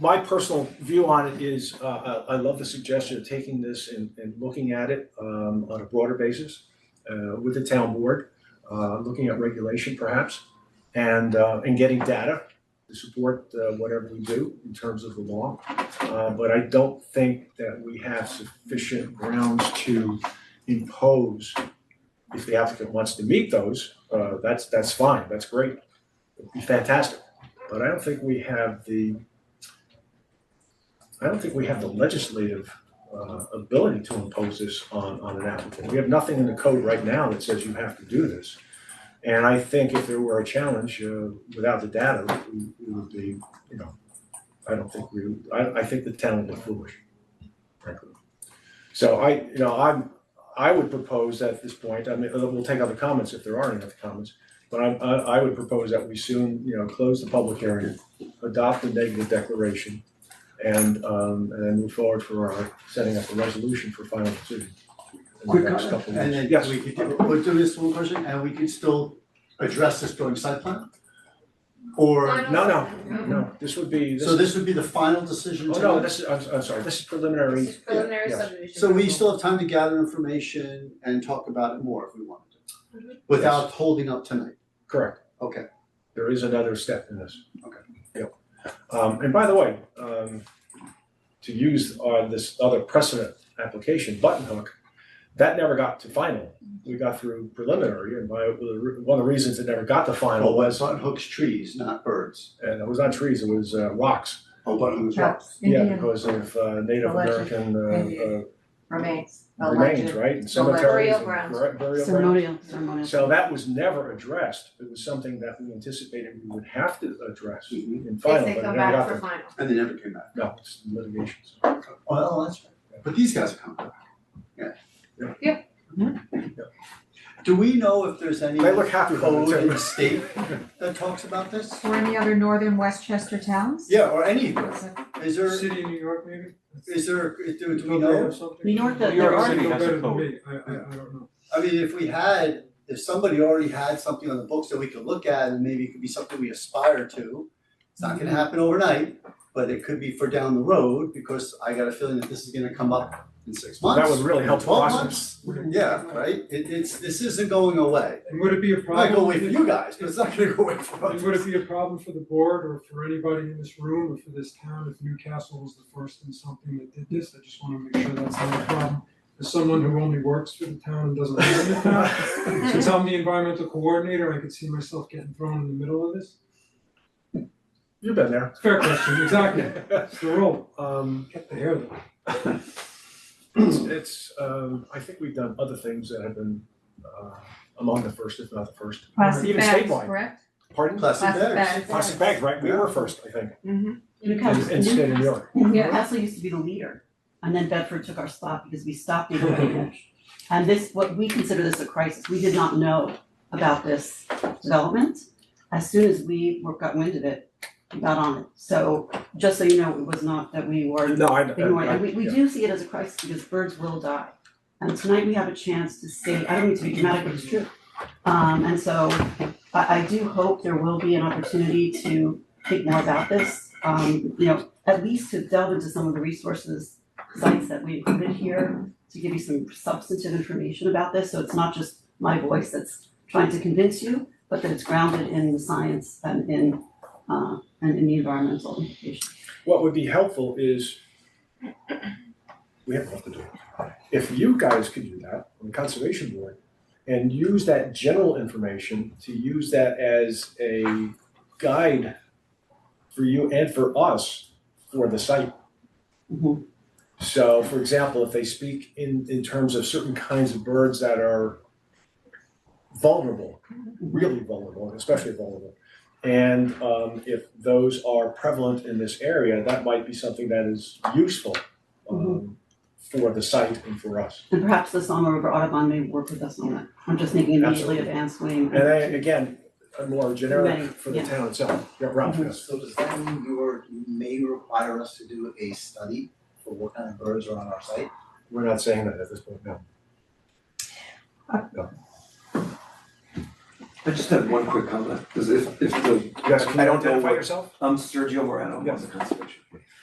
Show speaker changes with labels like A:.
A: my personal view on it is, uh, I, I love the suggestion of taking this and, and looking at it, um, on a broader basis, uh, with the town board, uh, looking at regulation perhaps, and, uh, and getting data to support, uh, whatever we do in terms of the law. Uh, but I don't think that we have sufficient grounds to impose, if the applicant wants to meet those, uh, that's, that's fine, that's great, it'd be fantastic. But I don't think we have the I don't think we have the legislative uh, ability to impose this on, on an applicant. We have nothing in the code right now that says you have to do this. And I think if there were a challenge, uh, without the data, we we would be, you know, I don't think we, I, I think the town would look foolish, frankly. So I, you know, I'm, I would propose at this point, I mean, uh, we'll take other comments if there are any other comments. But I, I, I would propose that we soon, you know, close the public hearing, adopt the negative declaration, and um and then move forward for our setting up a resolution for final decision. in
B: Quick
A: the next
B: comment,
A: couple of
B: and
A: weeks.
B: then
A: Yes.
B: we could, do- we'll do this one question, and we could still address this during site plan? Or,
A: No, no, no, this would be, this
B: so
A: is,
B: this would be the final decision
A: oh
B: tonight?
A: no, this is, I'm I'm sorry, this is preliminary.
C: This is preliminary
A: yeah, yes.
C: subdivision.
B: So we still have time to gather information and talk about it more if we wanted to,
C: Mhm.
B: without holding up tonight,
A: Correct,
B: okay?
A: there is another step in this.
B: Okay.
A: Yep. Um and by the way, um to use uh this other precedent application, button hook, that never got to final. We got through preliminary and by, one of the reasons it never got to final was,
B: on hooks trees, not birds.
A: and it was not trees, it was uh rocks.
B: Oh, but hooks
D: Trucks,
A: Yeah,
D: Indian
A: because of uh Native
D: Alleged.
A: American
D: Maybe.
A: uh
D: remains,
A: uh
D: alleged.
A: remains, right, and cemeteries
C: Burial
A: and
C: grounds.
A: bur- burial grounds.
E: Ceremonial, ceremonial.
A: So that was never addressed, it was something that we anticipated we would have to address
B: Mhm.
A: in
C: If
A: final, but
C: they
A: it never
C: come back
A: got
C: for
A: to,
C: final.
B: And they never came back.
A: no, it's litigations.
B: Well, that's right. But these guys are coming back, yeah.
C: Yeah.
B: Do we know if there's any
A: They look happy about
B: code in the
A: it
B: state
A: too.
B: that talks about this?
D: Or any other northern Westchester towns?
B: Yeah, or any,
D: Is it-
B: is there,
F: City of New York, maybe?
B: is there, do do we
F: Go there or
B: know?
F: something?
E: New York, there
G: New York
E: are-
G: City
F: Know
G: has a
F: better than
G: code.
F: me. I, I, I don't know.
B: I mean, if we had, if somebody already had something on the books that we could look at and maybe it could be something we aspire to. It's not gonna happen overnight, but it could be for down the road because I got a feeling that this is gonna come up in six months.
A: That would really help the
B: Twelve
A: process.
B: months, yeah, right? It it's, this isn't going away.
F: And would it be a
B: It might
F: problem?
B: go away for you guys, but it's not gonna go away for
F: And would
B: us.
F: it be a problem for the board or for anybody in this room or for this town if Newcastle was the first in something that did this? I just wanna make sure that's not a problem. As someone who only works for the town and doesn't live in the town, since I'm the environmental coordinator, I could see myself getting thrown in the middle of this.
A: You've been there.
F: Fair question, exactly. It's the role.
A: Um
F: Get the hair though.
A: it's it's, um I think we've done other things that have been uh among the first, if not the first.
D: Plastic
A: Even
D: bags,
A: statewide.
D: correct?
A: Pardon?
B: Plastic
D: Plastic
B: bags.
D: bags.
A: Plastic bags, right, we were first, I think,
E: Newcastle,
A: in in state of New York.
E: Newcastle used to be the leader, and then Bedford took our spot because we stopped being leader. And this, what we consider this a crisis, we did not know about this development. As soon as we were, got wind of it, we got on it. So, just so you know, it was not that we were
A: No, I, I,
E: ignoring,
A: I-
E: and we, we
A: yeah.
E: do see it as a crisis because birds will die. And tonight we have a chance to say, I don't mean to be dramatic, but it's true. Um, and so I, I do hope there will be an opportunity to think more about this. Um, you know, at least to delve into some of the resources, sites that we included here to give you some substantive information about this, so it's not just my voice that's trying to convince you, but that it's grounded in the science and in, uh, and in the environmental implications.
A: What would be helpful is, we have enough to do. If you guys could do that on the conservation board and use that general information to use that as a guide for you and for us for the site.
E: Mhm.
A: So for example, if they speak in in terms of certain kinds of birds that are vulnerable, really vulnerable, especially vulnerable. And um if those are prevalent in this area, that might be something that is useful um
E: Mm-hmm.
A: for the site and for us.
E: And perhaps the Song River Audubon may work with us on that. I'm just thinking immediately of Anne Swing.
A: And I, again, a more generic
E: Right,
A: for the
E: yeah. Mm-hmm.
A: town itself, yeah, Ralph, yes.
H: So does that mean you're, you may require us to do a study for what kind of birds are on our site?
A: We're not saying that at this point, no.
I: I just have one quick comment, because if, if the,
A: Yes, can
I: I
A: you
I: don't know
A: identify
I: what-
A: yourself?
I: I'm Sergio Morano, I'm on
A: Yes.
I: the conservation. Board.